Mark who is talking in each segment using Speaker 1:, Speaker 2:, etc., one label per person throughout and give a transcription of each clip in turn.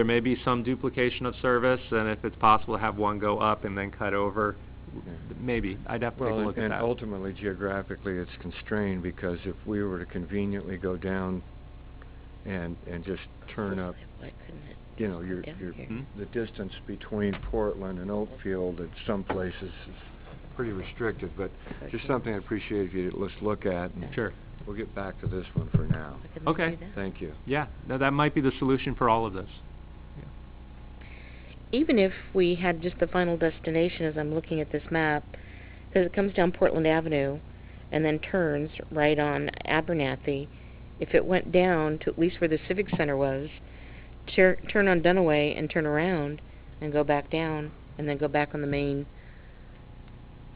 Speaker 1: There may be some duplication of service, and if it's possible to have one go up and then cut over,
Speaker 2: Yeah.
Speaker 1: maybe. I'd have to take a
Speaker 2: Well,
Speaker 1: look at
Speaker 2: and- and
Speaker 1: that.
Speaker 2: ultimately geographically, it's constrained because if we were to conveniently go down and, and just turn up,
Speaker 3: Why couldn't it?
Speaker 2: you know, your,
Speaker 3: Down
Speaker 2: your,
Speaker 3: here.
Speaker 1: Hmm?
Speaker 2: the distance between Portland and Oakfield at some places is pretty restricted, but just
Speaker 3: Okay.
Speaker 2: something I appreciate if you, let's look at. and
Speaker 1: Sure.
Speaker 2: We'll get back to this one for now.
Speaker 3: Why couldn't we
Speaker 1: Okay.
Speaker 3: do that?
Speaker 2: Thank you.
Speaker 1: Yeah, no, that might be the solution for all of this.
Speaker 3: Even if we had just the final destination, as I'm looking at this map, because it comes down Portland Avenue and then turns right on Abernathy, if it went down to at least where the Civic Center was, tur- turn on Dunaway and turn around and go back down and then go back on the main.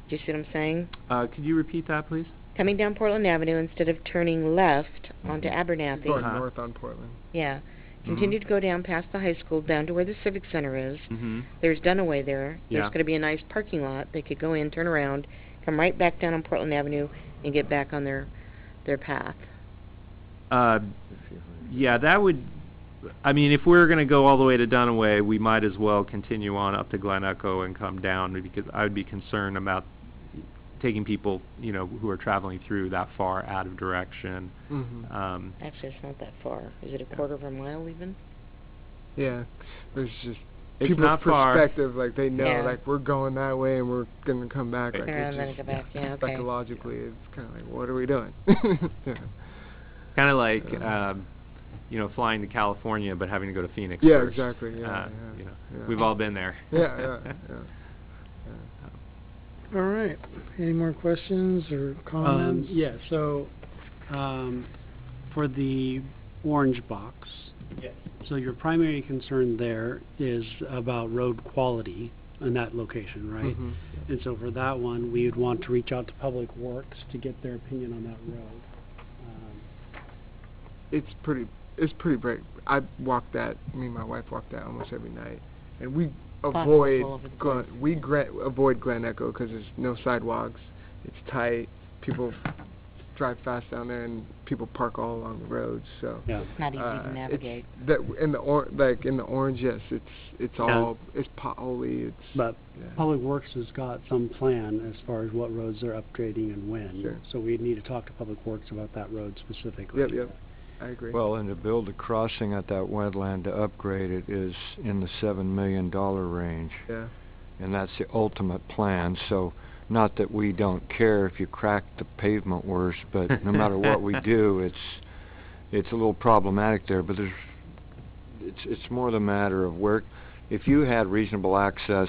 Speaker 3: Do you see what I'm saying?
Speaker 1: Uh, could you repeat that, please?
Speaker 3: Coming down Portland Avenue instead of turning left onto
Speaker 2: Mhm.
Speaker 3: Abernathy.
Speaker 4: Going
Speaker 1: Uh-huh.
Speaker 4: north on Portland.
Speaker 3: Yeah.
Speaker 4: Mm-hmm.
Speaker 3: Continue to go down past the high school, down to where the Civic Center is.
Speaker 1: Mm-hmm.
Speaker 3: There's Dunaway there.
Speaker 1: Yeah.
Speaker 3: There's gonna be a nice parking lot. They could go in, turn around, come right back down on Portland Avenue and get back on their, their path.
Speaker 1: Uh,
Speaker 2: If you-
Speaker 1: yeah, that would, I mean, if we're gonna go all the way to Dunaway, we might as well continue on up to Glen Echo and come down, because I would be concerned about taking people, you know, who are traveling through that far out of direction.
Speaker 4: Mm-hmm.
Speaker 1: Um,
Speaker 3: Actually, it's not that far. Is it a quarter of a mile even?
Speaker 4: Yeah, there's just
Speaker 1: It's
Speaker 4: people's
Speaker 1: not far.
Speaker 4: perspective. Like they know,
Speaker 3: Yeah.
Speaker 4: like we're going that way and we're gonna come back.
Speaker 1: Right.
Speaker 4: Like
Speaker 3: Turn around
Speaker 4: it's
Speaker 3: and then
Speaker 4: just
Speaker 3: go back, yeah, okay.
Speaker 4: psychologically, it's kind of like, what are we doing? yeah.
Speaker 1: Kind of like,
Speaker 4: Uh,
Speaker 1: um, you know, flying to California but having to go to Phoenix
Speaker 4: Yeah,
Speaker 1: first.
Speaker 4: exactly, yeah,
Speaker 1: Uh,
Speaker 4: yeah,
Speaker 1: you know,
Speaker 4: yeah.
Speaker 1: We've all been there.
Speaker 4: yeah, yeah, yeah, yeah.
Speaker 5: All right, any more questions or
Speaker 6: Um,
Speaker 5: comments?
Speaker 6: yeah, so, um, for the orange box. So your primary concern there is about road quality in that location,
Speaker 1: Um,
Speaker 6: right?
Speaker 4: Mhm.
Speaker 6: And so for that one, we would want to reach out to Public Works to get their opinion on that road. Um,
Speaker 4: It's pretty. It's pretty bright. I walk that. Me and my wife walk that almost every night, and we
Speaker 3: Potholes all
Speaker 4: avoid
Speaker 3: over the place.
Speaker 4: Glen, we gra- avoid Glen Echo because there's no sidewalks. It's tight. People drive fast down there, and people park all along the roads. So.
Speaker 6: Yeah.
Speaker 3: Not easy
Speaker 4: uh,
Speaker 3: to
Speaker 4: it's-
Speaker 3: navigate.
Speaker 4: That in the or like in the orange, yes, it's it's
Speaker 6: Yeah.
Speaker 4: all it's potholy. It's
Speaker 6: But
Speaker 4: yeah.
Speaker 6: Public Works has got some plan as far as what roads they're upgrading and when.
Speaker 4: Sure.
Speaker 6: So we'd need to talk to Public Works about that road specifically.
Speaker 4: Yep, yep. I agree.
Speaker 2: Well, and to build a crossing at that wetland to upgrade it is in the seven million dollar range.
Speaker 4: yeah.
Speaker 2: and that's the ultimate plan, so not that we don't care if you crack the pavement worse, but no matter what we do, it's, it's a little problematic there, but there's, it's, it's more the matter of where, if you had reasonable access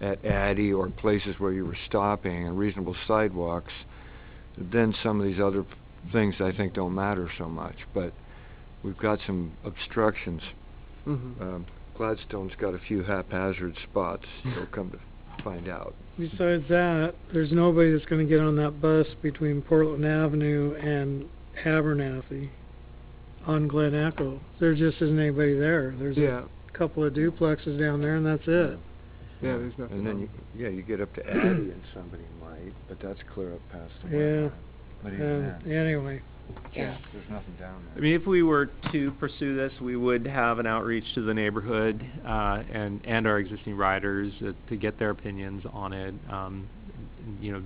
Speaker 2: at Addy or places where you were stopping and reasonable sidewalks, then some of these other things I think don't matter so much, but we've got some obstructions.
Speaker 4: Mm-hmm.
Speaker 2: Um, Gladstone's got a few haphazard spots, you'll come to find out.
Speaker 5: Besides that, there's nobody that's gonna get on that bus between Portland Avenue and Abernathy on Glen Echo. There just isn't anybody there. There's
Speaker 4: Yeah.
Speaker 5: a couple of duplexes down there and that's it.
Speaker 4: Yeah. There's nothing.
Speaker 2: And then,
Speaker 4: on-
Speaker 2: you yeah, you get up to Addy and somebody might, but that's clear up past the
Speaker 5: Yeah.
Speaker 2: wetland. But even
Speaker 5: Um,
Speaker 2: then,
Speaker 5: anyway,
Speaker 3: Yeah.
Speaker 2: there's nothing down
Speaker 1: I
Speaker 2: there.
Speaker 1: mean, if we were to pursue this, we would have an outreach to the neighborhood, uh, and, and our existing riders uh, to get their opinions on it. Um, you know,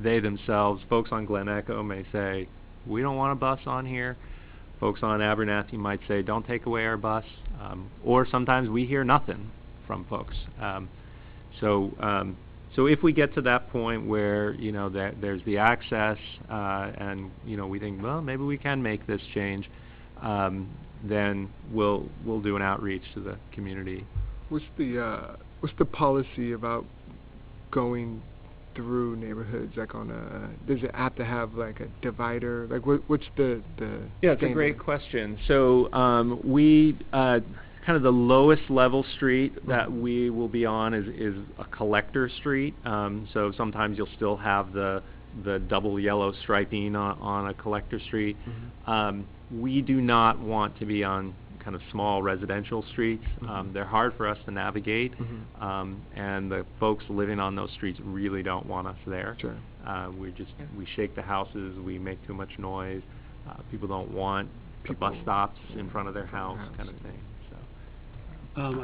Speaker 1: they themselves, folks on Glen Echo may say, we don't want a bus on here. Folks on Abernathy might say, don't take away our bus. Um, or sometimes we hear nothing from folks. Um, so, um, so if we get to that point where, you know, that there's the access, uh, and, you know, we think, well, maybe we can make this change, um, then we'll, we'll do an outreach to the community.
Speaker 4: What's the uh, what's the policy about going through neighborhoods? Like on a does it have to have like a divider? Like what what's the the
Speaker 1: Yeah, it's a great
Speaker 4: standard?
Speaker 1: question. So, um, we, uh, kind of the lowest level street that
Speaker 4: Mhm.
Speaker 1: we will be on is, is a collector street. Um, so sometimes you'll still have the, the double yellow striping on, on a collector street. Um, we do not want to be on kind of small residential streets. Um,
Speaker 4: Mhm.
Speaker 1: they're hard for us to navigate.
Speaker 4: Mhm.
Speaker 1: Um, and the folks living on those streets really don't want us there.
Speaker 4: Sure.
Speaker 1: Uh, we just,
Speaker 3: Yeah.
Speaker 1: we shake the houses, we make too much noise. Uh, people don't want the bus
Speaker 4: People-
Speaker 1: stops
Speaker 4: yeah,
Speaker 1: in front of their
Speaker 4: in front
Speaker 1: house
Speaker 4: of the
Speaker 1: kind of
Speaker 4: house.
Speaker 1: thing, so.
Speaker 6: Um, I